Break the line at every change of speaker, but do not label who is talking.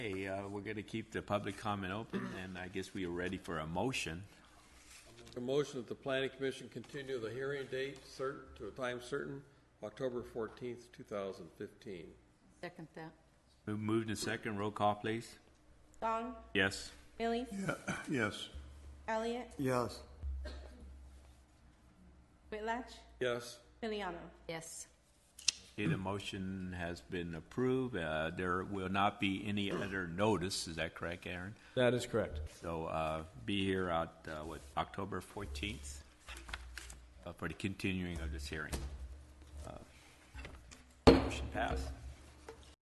uh, we're going to keep the public comment open, and I guess we are ready for a motion.
A motion that the planning commission continue the hearing date certain, to a time certain, October fourteenth, two thousand fifteen.
Second that.
Move Moved and second, roll call, please.
Gong,
Yes.
Millies,
Yes.
Elliot,
Yes.
Whitlatch,
Yes,
Miliano.
Yes.
Okay, the motion has been approved. Uh, There will not be any other notice, is that correct, Aaron?
That is correct.
So uh, be here at, uh, what, October 14th uh, for the continuing of this hearing. Uh, Motion passed.